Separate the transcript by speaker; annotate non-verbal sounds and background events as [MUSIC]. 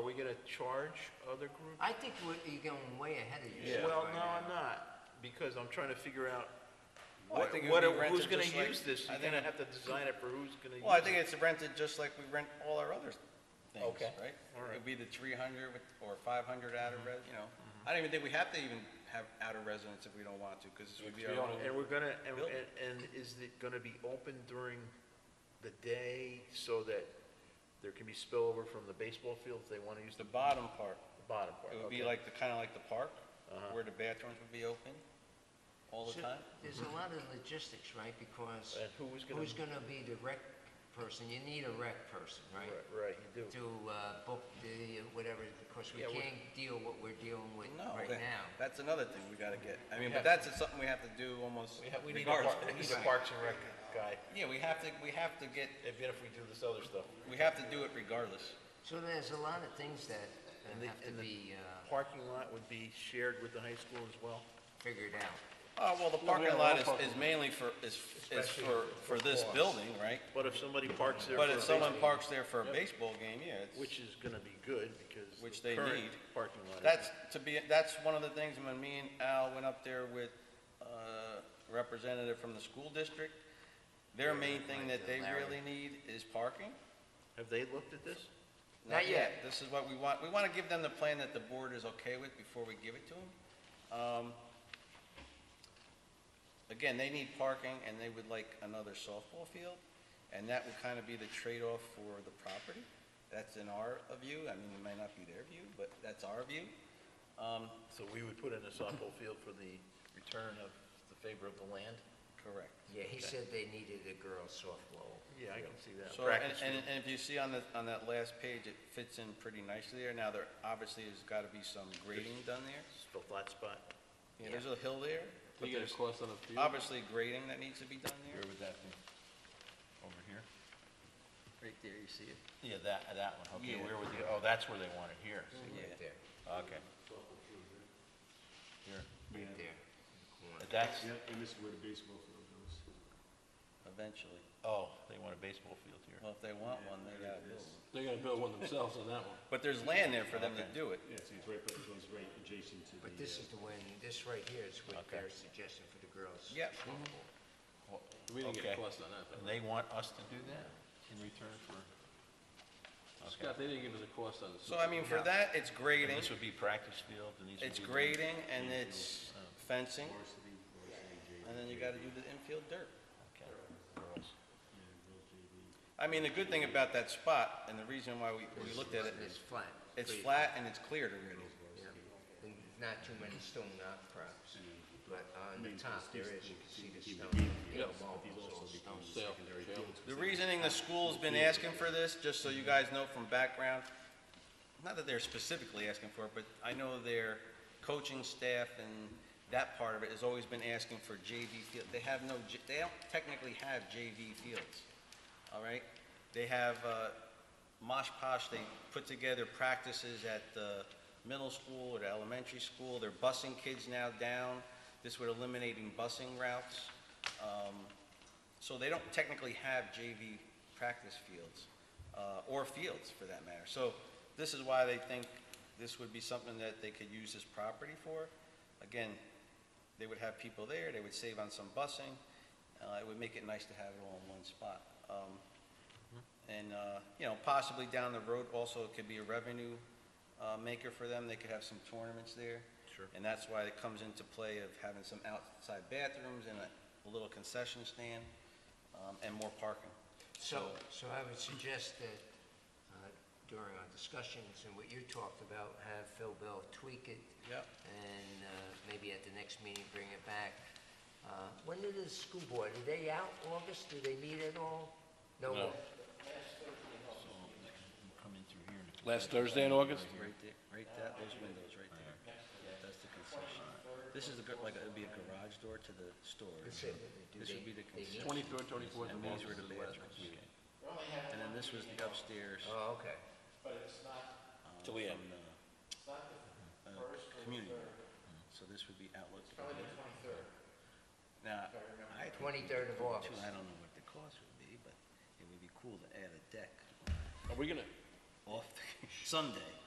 Speaker 1: gonna charge other groups?
Speaker 2: I think we're- you're going way ahead of yourself.
Speaker 1: Well,
Speaker 2: right
Speaker 1: no,
Speaker 2: now.
Speaker 1: I'm not, because I'm trying to figure out
Speaker 3: Well, I
Speaker 1: what,
Speaker 3: think it
Speaker 1: what
Speaker 3: would
Speaker 1: are-
Speaker 3: be rented
Speaker 1: who's gonna
Speaker 3: just like-
Speaker 1: use this?
Speaker 3: I
Speaker 1: You're
Speaker 3: think-
Speaker 1: gonna have to design it for who's gonna use it.
Speaker 3: Well, I think it's rented just like we rent all our other things,
Speaker 1: Okay.
Speaker 3: right?
Speaker 1: All right. Mm-hmm.
Speaker 3: It'd be the three hundred with, or five hundred outer res, you know. I don't even think we have to even have outer residence if we don't want to, because this would be our own.
Speaker 1: And we're gonna, and,
Speaker 3: Building.
Speaker 1: and, and is it gonna be open during the day so that there can be spillover from the baseball field if they wanna use the
Speaker 3: The bottom part,
Speaker 1: bottom part?
Speaker 3: it would be
Speaker 1: okay.
Speaker 3: like the, kinda like the park,
Speaker 1: Uh-huh.
Speaker 3: where the bathrooms would be open all the
Speaker 2: So,
Speaker 3: time.
Speaker 2: There's a lot of logistics, right, because
Speaker 1: And who was gonna?
Speaker 2: who's gonna be the rec person? You need a rec person, right?
Speaker 1: Right, right, you do.
Speaker 2: To, uh, book the, whatever, because we
Speaker 1: Yeah, we-
Speaker 2: can't deal what we're dealing with
Speaker 3: No,
Speaker 2: right
Speaker 3: that-
Speaker 2: now.
Speaker 3: that's another thing we gotta get. I mean,
Speaker 1: We have
Speaker 3: but that's something we have to do almost
Speaker 1: We have, we need a
Speaker 3: regardless.
Speaker 1: park, we need a Parks and Rec guy,
Speaker 3: [LAUGHS] Yeah, we have to, we have to get,
Speaker 1: even if we do this other stuff.
Speaker 3: we have to do it regardless.
Speaker 2: So there's a lot of things that
Speaker 1: And the-
Speaker 2: uh, have to
Speaker 1: and the-
Speaker 2: be, uh,
Speaker 1: Parking lot would be shared with the high school as well?
Speaker 2: figured out.
Speaker 3: Uh, well, the
Speaker 1: have
Speaker 3: parking
Speaker 1: a
Speaker 3: lot
Speaker 1: lot
Speaker 3: is,
Speaker 1: of
Speaker 3: is mainly for, is, is
Speaker 1: Especially
Speaker 3: for, for this
Speaker 1: costs.
Speaker 3: building, right?
Speaker 1: But if somebody parks there for
Speaker 3: But
Speaker 1: a
Speaker 3: if someone
Speaker 1: baseball-
Speaker 3: parks there for a baseball game, yeah, it's,
Speaker 1: Which is gonna be good, because.
Speaker 3: Which
Speaker 1: the
Speaker 3: they
Speaker 1: current
Speaker 3: need.
Speaker 1: Parking lot.
Speaker 3: that's to be, that's one of the things when me and Al went up there with, uh, representative from the school district. Their main thing that they really need is parking.
Speaker 1: Have they looked at this?
Speaker 2: Not yet.
Speaker 3: This is what we want, we want to give them the plan that the board is okay with before we give it to them. Um, Again, they need parking, and they would like another softball field, and that would kind of be the trade-off for the property. That's in our view, I mean, it may not be their view, but that's our view. Um,
Speaker 1: So we would put in a softball field for the return of the favor of the land?
Speaker 3: Correct.
Speaker 2: Yeah, he said they needed a girl softball.
Speaker 1: Yeah, I can see that.
Speaker 3: So, and,
Speaker 1: Practice
Speaker 3: and
Speaker 1: field.
Speaker 3: and if you see on the, on that last page, it fits in pretty nicely there. Now, there obviously has got to be some grading done there.
Speaker 1: It's the flat spot.
Speaker 3: Yeah, there's a hill there. but
Speaker 4: You get
Speaker 3: there's-
Speaker 4: a cost on the field?
Speaker 3: obviously grading that needs to be done
Speaker 4: Where
Speaker 3: there.
Speaker 4: would that be? Over here?
Speaker 3: Right there, you see it?
Speaker 4: Yeah, that, that one, okay,
Speaker 3: Yeah.
Speaker 4: where would the, oh, that's where they want it, here, see?
Speaker 3: Yeah.
Speaker 2: There,
Speaker 1: Mm-hmm.
Speaker 4: okay. Here,
Speaker 2: there.
Speaker 4: But that's,
Speaker 5: Yep, and this is where the baseball field goes.
Speaker 3: Eventually.
Speaker 4: oh, they want a baseball field here.
Speaker 3: Well, if they want one, they gotta build one.
Speaker 4: They're gonna build one themselves on that one.
Speaker 3: But there's land there for them to
Speaker 4: Okay.
Speaker 3: do it.
Speaker 5: Yeah, so it's right, but it goes right adjacent to the.
Speaker 2: But this
Speaker 5: uh,
Speaker 2: is the one, this right here is what
Speaker 4: Okay.
Speaker 2: they're suggesting for the girls.
Speaker 3: Yeah.
Speaker 2: softball.
Speaker 4: We didn't get a cost on that. And they want us to do that in return for? Scott, they didn't give us a cost on this.
Speaker 3: So I mean, for that, it's grading,
Speaker 4: This would be practice field and these would be.
Speaker 3: it's
Speaker 4: the-
Speaker 3: grading and it's fencing. And then you gotta do the infield dirt.
Speaker 4: Okay. Girls.
Speaker 3: I mean, the good thing about that spot and the reason why we, we looked at it
Speaker 2: It's
Speaker 3: is
Speaker 2: flat.
Speaker 3: it's
Speaker 2: pretty-
Speaker 3: flat and it's cleared already.
Speaker 2: yeah. And Not too many stone outcrops, but on the top there is, you can see the stone, you know, marbles or stone.
Speaker 4: Sale, sale.
Speaker 3: The reasoning the school's been asking for this, just so you guys know from background, not that they're specifically asking for it, but I know their coaching staff and that part of it has always been asking for JV field. They have no, J- they don't technically have JV fields, all right? They have, uh, mosh posh, they put together practices at the middle school or the elementary school. They're busing kids now down. This would eliminating busing routes. Um, so they don't technically have JV practice fields, uh, or fields for that matter. So this is why they think this would be something that they could use this property for. Again, they would have people there, they would save on some busing, uh, it would make it nice to have it all in one spot. Um, And, uh, you know, possibly down the road also it could be a revenue uh, maker for them, they could have some tournaments there.
Speaker 1: Sure.
Speaker 3: And that's why it comes into play of having some outside bathrooms and a a little concession stand, um, and more parking.
Speaker 2: So, so I would suggest that uh, during our discussions and what you talked about, have Phil Bell tweak it.
Speaker 3: Yep.
Speaker 2: And uh, maybe at the next meeting, bring it back. Uh, When did the school board, are they out August? Do they meet at all? No.
Speaker 4: Come in through here and
Speaker 6: Last Thursday in August?
Speaker 3: Right there, right that, those windows right there. Yeah, that's the concession. This is the gar- like, it'd be a garage door to the store.
Speaker 2: That's it. Do
Speaker 3: This
Speaker 2: they-
Speaker 3: would be the
Speaker 2: they meet?
Speaker 3: concession.
Speaker 4: Twenty-third, twenty-fourth,
Speaker 3: And
Speaker 4: and
Speaker 3: these
Speaker 4: August
Speaker 3: were
Speaker 4: is
Speaker 3: the
Speaker 4: the last
Speaker 3: bathrooms. And then this was the upstairs.
Speaker 2: Oh, okay.
Speaker 3: uh,
Speaker 6: Till the end.
Speaker 3: from the, uh, Community. room. So this would be outlook. Now, I. think
Speaker 2: 23rd of
Speaker 3: two-
Speaker 2: August.
Speaker 3: I don't know what the cost would be, but it would be cool to add a deck
Speaker 6: Are we gonna,
Speaker 3: off the- [LAUGHS] someday.